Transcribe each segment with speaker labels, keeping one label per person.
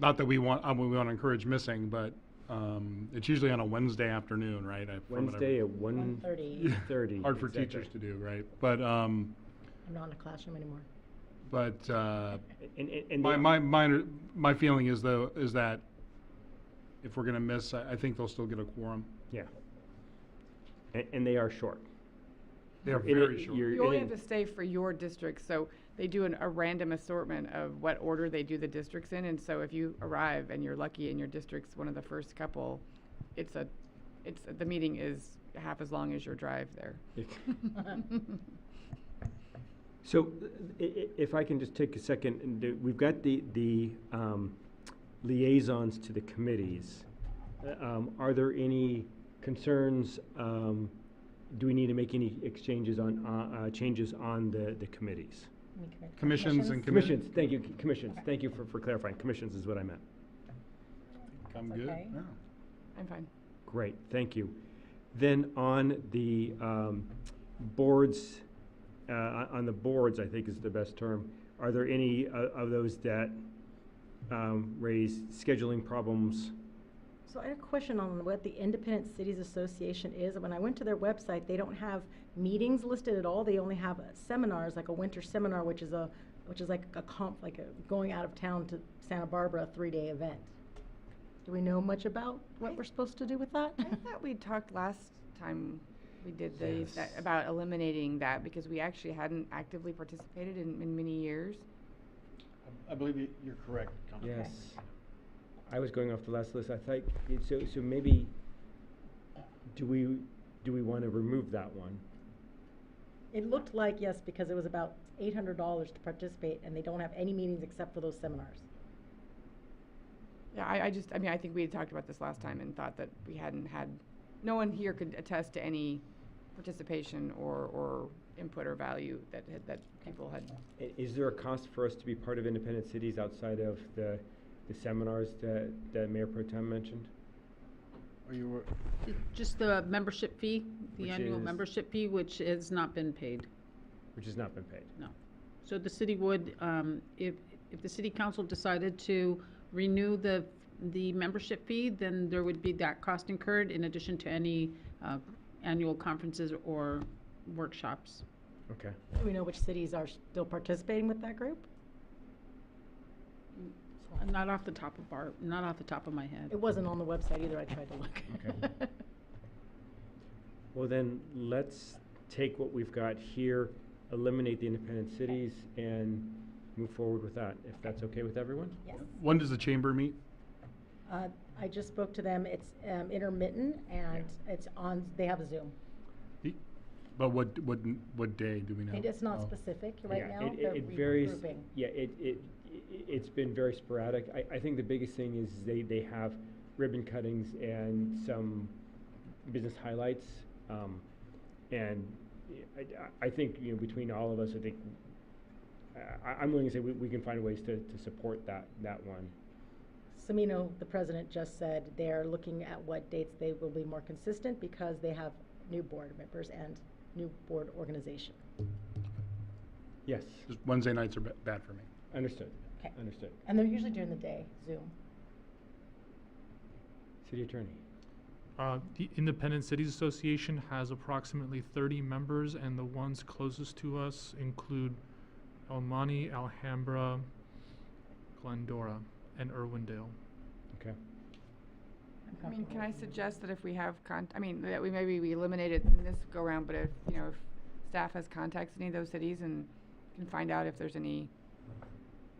Speaker 1: not that we want, I mean, we want to encourage missing, but, um, it's usually on a Wednesday afternoon, right? I- from what I-
Speaker 2: Wednesday at one
Speaker 1: Yeah.
Speaker 3: thirty,
Speaker 2: thirty.
Speaker 1: Hard for teachers to do, right? But, um,
Speaker 3: I'm not in a classroom anymore.
Speaker 1: but, uh,
Speaker 2: And, and- and
Speaker 1: my,
Speaker 2: the-
Speaker 1: my, my, my feeling is though, is that if we're gonna miss, I, I think they'll still get a quorum.
Speaker 2: Yeah. And, and they are short.
Speaker 1: They are
Speaker 2: In a-
Speaker 1: very short.
Speaker 2: you're
Speaker 4: You only
Speaker 2: in
Speaker 4: have to stay for your district, so they do an, a random assortment of what order they do the districts in, and so if you arrive and you're lucky and your district's one of the first couple, it's a, it's, the meeting is half as long as your drive there.
Speaker 2: a- So i- i- if I can just take a second, and do- we've got the, the um, liaisons to the committees. Uh, um, Are there any concerns? um, Do we need to make any exchanges on, uh, uh, changes on the, the committees?
Speaker 3: Let me correct that.
Speaker 1: Commissions and commi-
Speaker 2: Commissions, thank you, c- commissions, thank you for, for clarifying, commissions is what I meant.
Speaker 1: I'm
Speaker 3: That's
Speaker 1: good,
Speaker 3: okay.
Speaker 1: yeah.
Speaker 4: I'm fine.
Speaker 2: Great, thank you. Then on the um, boards, uh, on the boards, I think is the best term, are there any o- of those that um, raise scheduling problems?
Speaker 3: So I had a question on what the Independent Cities Association is. When I went to their website, they don't have meetings listed at all. They only have uh, seminars, like a winter seminar, which is a, which is like a comp, like a going out of town to Santa Barbara, three-day event. Do we know much about what we're supposed to do with that?
Speaker 4: I thought we talked last time we did the, that,
Speaker 2: Yes.
Speaker 4: about eliminating that, because we actually hadn't actively participated in, in many years.
Speaker 5: I believe you- you're correct, Councilman.
Speaker 2: Yes. I was going off the last list, I think, so, so maybe, do we, do we want to remove that one?
Speaker 3: It looked like, yes, because it was about eight hundred dollars to participate, and they don't have any meetings except for those seminars.
Speaker 4: Yeah, I, I just, I mean, I think we had talked about this last time and thought that we hadn't had, no one here could attest to any participation or, or input or value that, had- that people had.
Speaker 2: I- Is there a cost for us to be part of independent cities outside of the, the seminars that, that Mayor Pro Tem mentioned?
Speaker 5: Are you,
Speaker 6: Just the membership fee, the
Speaker 2: Which
Speaker 6: annual
Speaker 2: is-
Speaker 6: membership fee, which has not been paid,
Speaker 2: Which has not been paid.
Speaker 6: no. So the city would, um, if, if the city council decided to renew the, the membership fee, then there would be that cost incurred in addition to any uh, annual conferences or workshops.
Speaker 2: Okay.
Speaker 3: Do we know which cities are still participating with that group?
Speaker 6: Not off the top of our, not off the top of my head.
Speaker 3: It wasn't on the website either, I tried to look.
Speaker 2: Okay. Well, then, let's take what we've got here, eliminate the independent cities, and move forward with that, if that's okay with everyone?
Speaker 3: Yes.
Speaker 1: When does the chamber meet?
Speaker 3: Uh, I just spoke to them, it's um, intermittent and it's on, they have Zoom.
Speaker 1: The- But what, what, what day do we know?
Speaker 3: And it's not
Speaker 1: Oh.
Speaker 3: specific right
Speaker 2: Yeah,
Speaker 3: now,
Speaker 2: it- it-
Speaker 3: they're
Speaker 2: it varies-
Speaker 3: regrouping.
Speaker 2: Yeah, it, it, i- it's been very sporadic. I, I think the biggest thing is they, they have ribbon cuttings and some business highlights. Um, and I, I- I think, you know, between all of us, I think, I, I'm willing to say we, we can find ways to, to support that, that one.
Speaker 3: Semino, the president just said they're looking at what dates they will be more consistent because they have new board members and new board organization.
Speaker 2: Yes,
Speaker 1: Just Wednesday nights are ba- bad for me.
Speaker 2: understood,
Speaker 3: Okay.
Speaker 2: understood.
Speaker 3: And they're usually during the day, Zoom.
Speaker 2: City attorney.
Speaker 7: Uh, The Independent Cities Association has approximately 30 members, and the ones closest to us include El Monte, Alhambra, Glendora, and Irwindale.
Speaker 2: Okay.
Speaker 3: I'm
Speaker 4: I mean,
Speaker 3: comfortable
Speaker 4: can I
Speaker 3: with that.
Speaker 4: suggest that if we have con, I mean, that we, maybe we eliminate it in this go-round, but if, you know, if staff has contacts in any of those cities and can find out if there's any,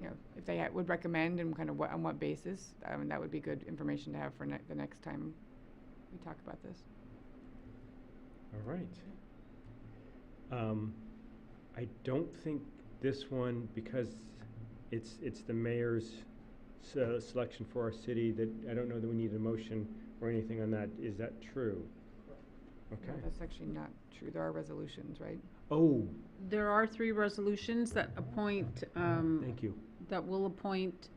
Speaker 4: you know, if they ha- would recommend and kind of what, on what basis, I mean, that would be good information to have for ne- the next time we talk about this.
Speaker 2: All right. Um, I don't think this one, because it's, it's the mayor's se- selection for our city, that, I don't know that we need a motion or anything on that. Is that true?
Speaker 4: No,
Speaker 2: Okay.
Speaker 4: That's actually not true. There are resolutions, right?
Speaker 2: Oh,
Speaker 6: There are three resolutions that appoint, um,
Speaker 2: thank you.
Speaker 6: that will appoint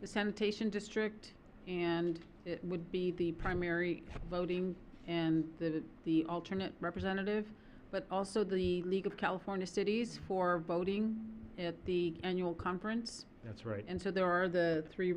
Speaker 6: the sanitation district, and it would be the primary voting and the, the alternate representative, but also the League of California Cities for voting at the annual conference.
Speaker 2: That's right.
Speaker 6: And so there are the three